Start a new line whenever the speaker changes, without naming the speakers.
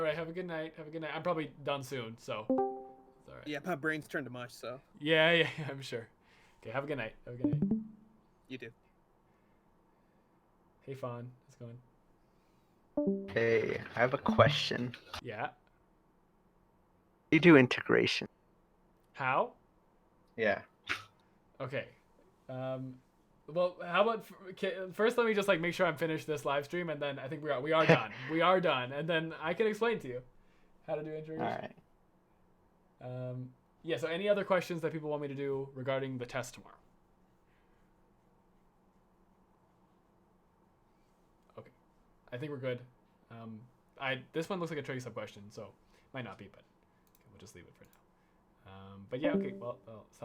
right, have a good night. Have a good night. I'm probably done soon, so it's all right.
Yeah, my brain's turned to mush, so
Yeah, yeah, I'm sure. Okay, have a good night. Have a good night.
you do.
Hey, Fawn, how's it going?
Hey, I have a question.
Yeah.
You do integration.
How?
Yeah.
Okay. Um, well, how about f- ca- first? Let me just like make sure I'm finished this live stream, and then I think we are we are done. we are done, and then I can explain to you how to do integration.
All right.
Um, yeah. So, any other questions that people want me to do regarding the test tomorrow? Okay, I think we're good. Um, I this one looks like a tricky sub question, so might not be, but we'll just leave it for now. Um, but yeah, okay. Well, I'll